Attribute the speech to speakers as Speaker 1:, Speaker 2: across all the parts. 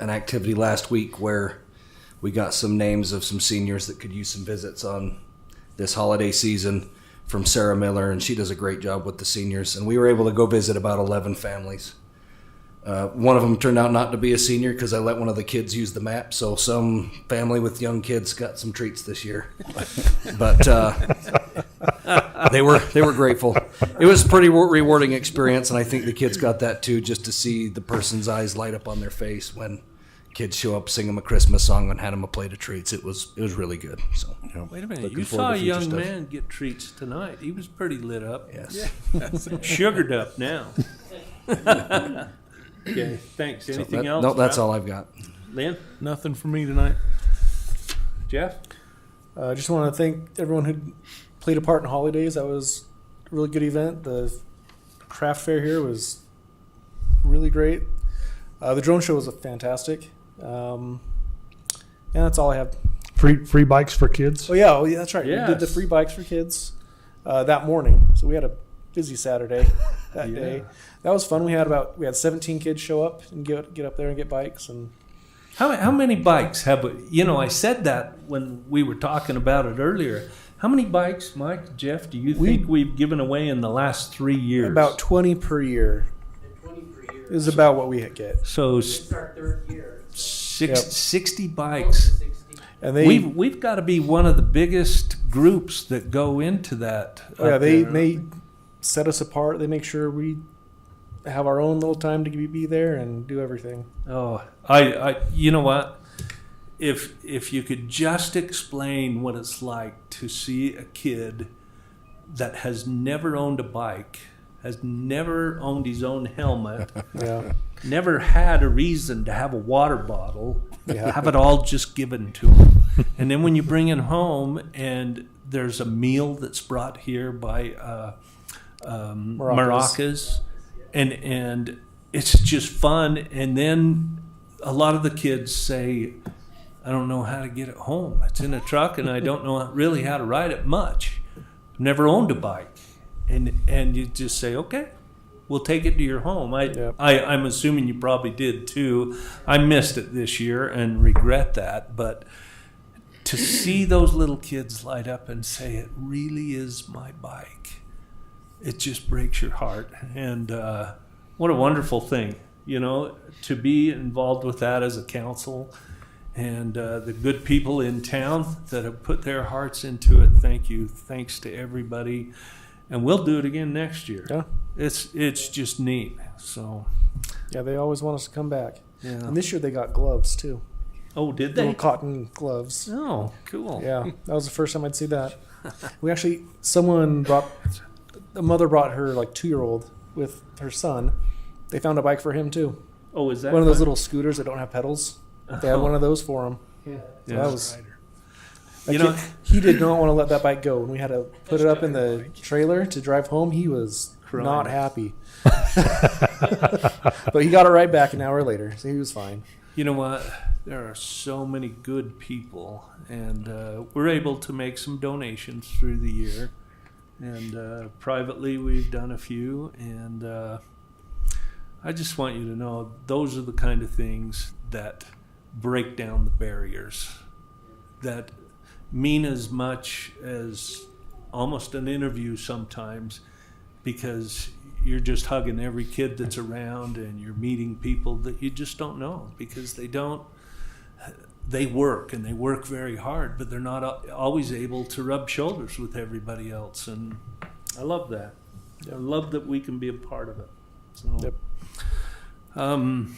Speaker 1: an activity last week where we got some names of some seniors that could use some visits on this holiday season from Sarah Miller, and she does a great job with the seniors. And we were able to go visit about 11 families. Uh, one of them turned out not to be a senior because I let one of the kids use the map. So some family with young kids got some treats this year. but uh, they were they were grateful. It was a pretty re- rewarding experience, and I think the kids got that too, just to see the person's eyes light up on their face when kids show up, sing them a Christmas song, and hand them a plate of treats. It was it was really good. So
Speaker 2: Wait a minute,
Speaker 1: Looking
Speaker 2: you
Speaker 1: forward
Speaker 2: saw
Speaker 1: to
Speaker 2: a
Speaker 1: future
Speaker 2: young
Speaker 1: stuff.
Speaker 2: man get treats tonight. He was pretty lit up,
Speaker 1: yes,
Speaker 2: sugared up now. okay, thanks.
Speaker 1: So
Speaker 2: Anything
Speaker 1: that-
Speaker 2: else?
Speaker 1: No, that's
Speaker 2: Rob?
Speaker 1: all I've got.
Speaker 2: Lynn,
Speaker 3: Nothing for me tonight.
Speaker 2: Jeff,
Speaker 4: I uh, just want to thank everyone who played a part in holidays. That was a really good event. The craft fair here was really great. Uh, the drone show was fantastic. Um, yeah, that's all I have.
Speaker 5: Free free bikes for kids.
Speaker 4: Oh yeah, oh yeah, that's right. We did the
Speaker 2: Yes.
Speaker 4: free bikes for kids uh, that morning, so we had a busy Saturday that
Speaker 2: Yeah.
Speaker 4: day. That was fun. We had about we had 17 kids show up and get get up there and get bikes, and
Speaker 2: how how many bikes have we- you know? I said that when we were talking about it earlier. How many bikes, Mike, Jeff? Do you
Speaker 4: We-
Speaker 2: think we've given away in the last three years?
Speaker 4: about 20 per year
Speaker 6: Twenty per year.
Speaker 4: is about what we get.
Speaker 2: so
Speaker 6: This
Speaker 2: s-
Speaker 6: is our third year.
Speaker 2: six,
Speaker 4: Yep.
Speaker 2: 60
Speaker 6: Close to
Speaker 2: bikes.
Speaker 6: 60.
Speaker 4: And they
Speaker 2: we've we've got to be one of the biggest groups that go into that.
Speaker 4: Oh, yeah,
Speaker 2: up
Speaker 4: they
Speaker 2: there.
Speaker 4: they set us apart. They make sure we have our own little time to be- be there and do everything.
Speaker 2: Oh, I, I, you know what? If if you could just explain what it's like to see a kid that has never owned a bike, has never owned his own helmet,
Speaker 4: Yeah,
Speaker 2: never had a reason to have a water bottle,
Speaker 4: Yeah.
Speaker 2: have it all just given to him, and then when you bring it home and there's a meal that's brought here by uh, um,
Speaker 4: Maracas.
Speaker 2: maracas, and and it's just fun. And then a lot of the kids say, "I don't know how to get it home. It's in a truck, and I don't know really how to ride it much. Never owned a bike." And and you just say, "Okay, we'll take it to your home." I,
Speaker 4: Yep.
Speaker 2: I I'm assuming you probably did too. I missed it this year and regret that, but. To see those little kids light up and say, "It really is my bike," it just breaks your heart. And uh, what a wonderful thing, you know, to be involved with that as a council and uh, the good people in town that have put their hearts into it. Thank you. Thanks to everybody. And we'll do it again next year.
Speaker 4: Yeah.
Speaker 2: It's it's just neat. So
Speaker 4: yeah. They always want us to come back.
Speaker 2: yeah.
Speaker 4: And this year they got gloves too,
Speaker 2: Oh, did
Speaker 4: little
Speaker 2: they?
Speaker 4: cotton gloves.
Speaker 2: Oh, cool.
Speaker 4: Yeah, that was the first time I'd see that. We actually someone brought a mother brought her like two year old with her son. They found a bike for him too.
Speaker 2: Oh, is that
Speaker 4: One of those
Speaker 2: fun?
Speaker 4: little scooters that don't have pedals. They
Speaker 2: Oh.
Speaker 4: had one of those for him. So
Speaker 2: Yeah.
Speaker 4: that was
Speaker 2: You
Speaker 4: you
Speaker 2: know-
Speaker 4: know he did not want to let that bike go when we had to put it up in the trailer to drive home he was
Speaker 2: Crying.
Speaker 4: not happy but he got it right back an hour later so he was fine
Speaker 2: You know what? There are so many good people, and uh, we're able to make some donations through the year. And uh, privately, we've done a few. And uh, I just want you to know those are the kind of things that break down the barriers, that mean as much as almost an interview sometimes because you're just hugging every kid that's around and you're meeting people that you just don't know because they don't they work and they work very hard but they're not al- always able to rub shoulders with everybody else and i love that i love that we can be a part of it so
Speaker 4: Yep.
Speaker 2: um,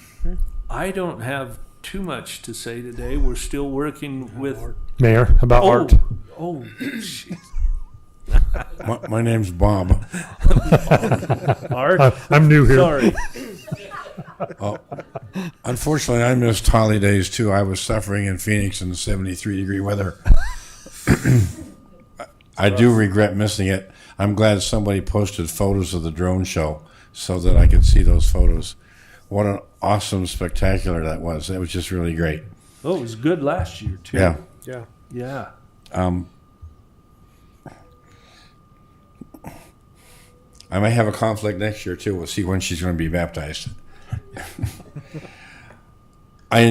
Speaker 2: i don't have too much to say today we're still working with
Speaker 5: Mayor about
Speaker 2: oh,
Speaker 5: art.
Speaker 2: oh jeez.
Speaker 3: My, my name's Bob.
Speaker 2: art
Speaker 5: I, I'm new here.
Speaker 2: sorry
Speaker 3: Unfortunately, I missed holidays too. I was suffering in Phoenix in 73 degree weather. I do regret missing it. I'm glad somebody posted photos of the drone show so that I could see those photos. What an awesome spectacular that was. That was just really great.
Speaker 2: oh it was good last year too
Speaker 3: Yeah.
Speaker 4: yeah
Speaker 2: yeah
Speaker 3: Um, I may have a conflict next year too. We'll see when she's going to be baptized.